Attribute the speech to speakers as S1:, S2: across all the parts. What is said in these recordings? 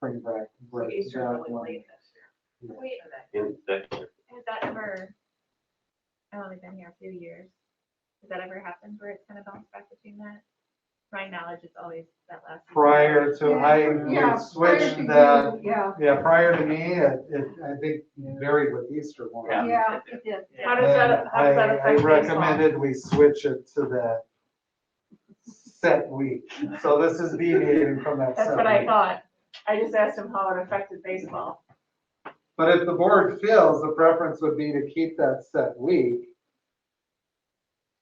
S1: brings back.
S2: So
S1: brings
S2: Easter
S1: back
S2: really
S1: one.
S2: late this year. Wait a minute,
S3: in that year.
S2: has that ever, I've only been here a few years, has that ever happened where it's kind of bounced back between that? My knowledge is always that last. Easter.
S1: Prior to, I
S4: Yeah,
S1: would
S4: prior
S1: switch
S4: to you,
S1: that,
S4: Yeah,
S1: yeah, prior to me, it, it, I think varied with Easter one.
S3: Yeah.
S4: yeah, it did.
S2: How does that, how does that
S1: And I-
S2: affect
S1: I
S2: baseball?
S1: recommended we switch it to that set week. So this is deviating from that
S2: That's
S1: set
S2: what I
S1: week.
S2: thought. I just asked him how it affected baseball.
S1: But if the board feels, the preference would be to keep that set week.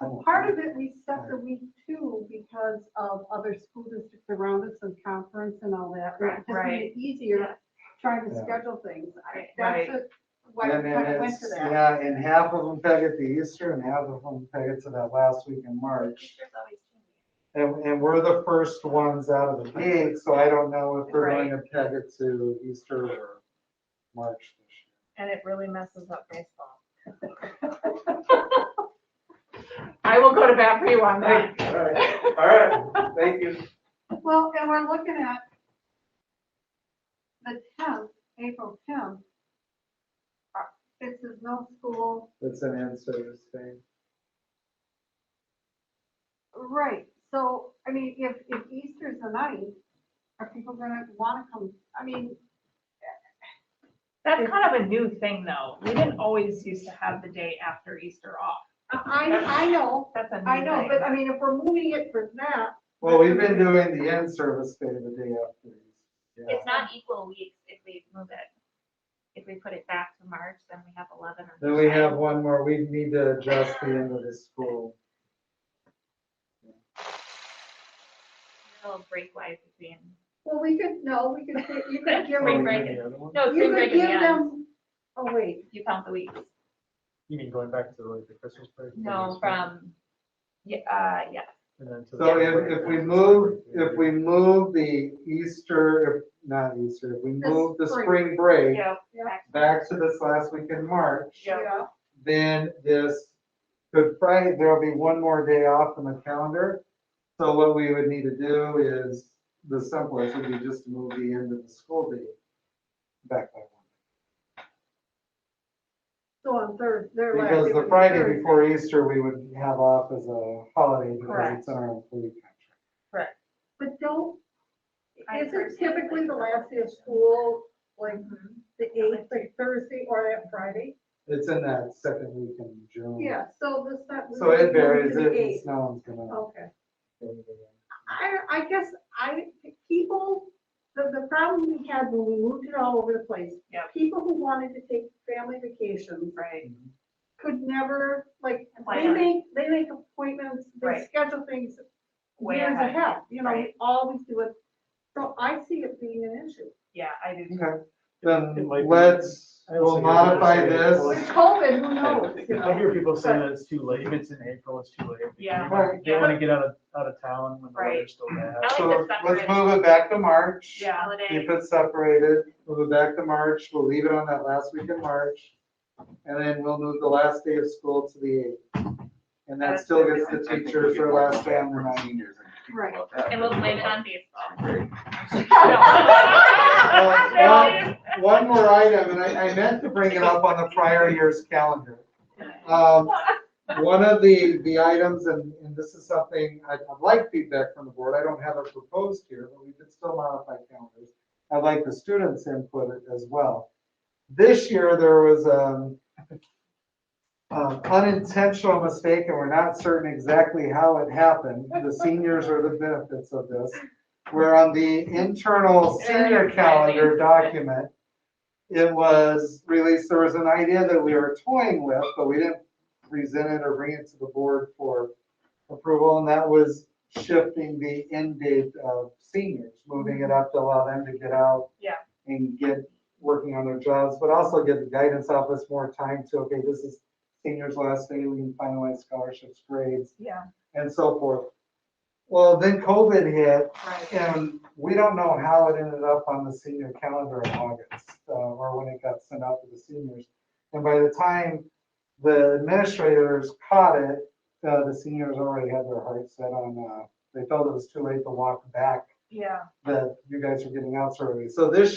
S1: I don't
S4: Part of it, we set the week too because of other school districts around us and conference and all that. It just made it
S2: Right. Yeah.
S4: Easier trying to
S1: Yeah.
S4: schedule things. I-
S2: Right.
S4: That's just why
S1: And
S4: we
S1: then
S4: kind of went
S1: it's-
S4: to that.
S1: Yeah, and half of them peg it to Easter and half of them peg it to that last week in March.
S2: Teachers always change.
S1: And, and we're the first ones out of the gate, so I don't know if they're going to peg it to Easter or March.
S2: And it really messes up baseball. I will go to bat for you on that.
S1: All right, all right, thank you.
S4: Well, and we're looking at the tenth, April tenth. Uh, This is no school,
S1: That's an in-service thing.
S4: right, so, I mean, if, if Easter's the ninth, are people gonna wanna come, I mean,
S5: That's kind of a new thing, though. We didn't always used to have the day after Easter off.
S4: I, I know,
S5: That's a new thing.
S4: I know, but uh, I mean, if we're moving it for that,
S1: Well, we've been doing the in-service day the day after. Yeah.
S2: It's not equal weeks if we move it. If we put it back to March, then we have eleven. on
S1: Then we
S2: Friday.
S1: have one more, we need to adjust the end of the school.
S2: A Little break wise between.
S4: well, we could, no, we could, you could give,
S1: Oh,
S2: Spring
S1: we
S4: them-
S2: break.
S1: had the other one?
S2: No,
S4: you could give them, oh, wait,
S2: You count the weeks.
S6: You mean going back to like the Christmas break?
S2: No, from, yeah, uh, yeah,
S6: And then to the-
S1: So if, if we move, if we move the Easter, if- not Easter, if we
S4: The
S1: move the
S4: spring.
S1: spring break
S2: yeah,
S1: back to this last week in March,
S2: Yeah.
S4: yeah,
S1: then this, Good Friday, there'll be one more day off on the calendar. So what we would need to do is, the simplest would be just to move the end of the school day back by one.
S4: so on Thursday, they're like.
S1: Because the Friday before Easter, we would have off as a holiday because
S2: Correct.
S1: it's our employee contract.
S4: But don't,
S2: I
S4: is it
S2: personally
S4: typically
S2: like
S4: the
S2: the
S4: last day of
S2: Thursday.
S4: school, like the eighth, like Thursday or that Friday?
S1: It's in that second week in June.
S4: Yeah, so this, that.
S1: Mm. So it varies,
S4: The
S1: it,
S4: eighth,
S1: no one's gonna.
S4: okay. I, I guess I, people, the, the problem we had when we moved it all over the place.
S5: Yep.
S4: People who wanted to take family vacations
S5: Right.
S4: could never, like, they
S2: Plan.
S4: make, they make appointments, they
S5: Right.
S4: schedule things
S5: Way
S4: years
S5: ahead.
S4: ahead, you know, we
S5: Right.
S4: always do it. So I see it being an issue.
S5: Yeah, I do.
S1: Okay,
S6: It
S1: then
S6: might be-
S1: let's,
S6: I also
S1: we'll
S6: hear people
S1: modify
S6: say-
S4: With
S1: this.
S4: COVID, who knows? you
S6: I
S4: know?
S6: hear people say that it's too late, if it's in April, it's too late.
S5: Yeah.
S1: Right.
S6: They wanna get out of, out of town when the
S5: Right.
S6: weather's still bad.
S2: I like
S1: So
S2: to
S1: let's
S2: separate.
S1: move it back to March.
S5: Yeah.
S2: holiday,
S1: Keep it separated, move it back to March, we'll leave it on that last week in March. And then we'll move the last day of school to the eighth. And that still gets the teachers their last day on the ninth.
S4: Right.
S2: and we'll blame it on baseball.
S1: Well, One one more item, and I, I meant to bring it up on the prior year's calendar. Um, One of the, the items, and, and this is something, I'd I'd like feedback from the board, I don't have it proposed here, but we could still modify calendars. I'd like the students' input as well. This year, there was um, um, unintentional mistake, and we're not certain exactly how it happened. The seniors are the benefits of this. Where on the internal senior calendar document, it was released, there was an idea that we were toying with, but we didn't present it or bring it to the board for approval, and that was shifting the end date of seniors, moving it up to allow them to get out.
S5: Yeah.
S1: And get working on their jobs, but also give the guidance office more time to, okay, this is seniors' last day, we can finalize scholarships, grades,
S5: Yeah,
S1: and so forth. Well, then COVID hit,
S5: right.
S1: and we don't know how it ended up on the senior calendar in August, uh, or when it got sent out to the seniors. And by the time the administrators caught it, uh, the seniors already had their hearts set on, uh, they felt it was too late to walk back
S5: Yeah.
S1: that you guys are getting out so early. So this